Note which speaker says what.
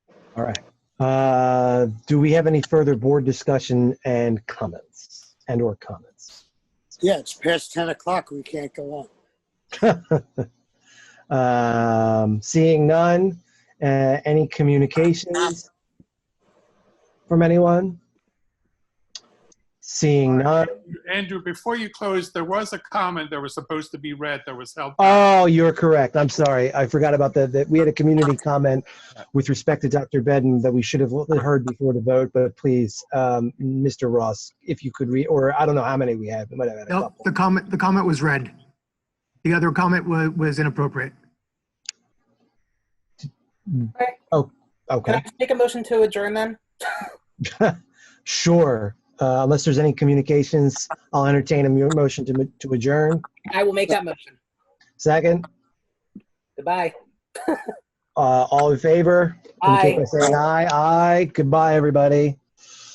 Speaker 1: All right. Uh, Do we have any further board discussion and comments, and/or comments?
Speaker 2: Yeah, it's past 10 o'clock. We can't go on.
Speaker 1: Um, Seeing none, uh, any communications from anyone? Seeing none.
Speaker 3: Andrew, before you close, there was a comment that was supposed to be read that was held.
Speaker 1: Oh, you're correct. I'm sorry. I forgot about that. That we had a community comment with respect to Dr. Bedden that we should have heard before the vote, but please, um, Mr. Ross, if you could read, or I don't know how many we have, we might have had a
Speaker 4: No,
Speaker 1: couple.
Speaker 4: the comment, the comment was read. The other comment was, was inappropriate.
Speaker 1: Okay.
Speaker 5: Can I make a motion to adjourn then?
Speaker 1: Sure. Uh, Unless there's any communications, I'll entertain a mu- motion to m- to adjourn.
Speaker 5: I will make that motion.
Speaker 1: Second,
Speaker 5: Goodbye.
Speaker 1: uh, all in favor? indicate
Speaker 5: Aye.
Speaker 1: by Saying aye, aye. Goodbye, everybody.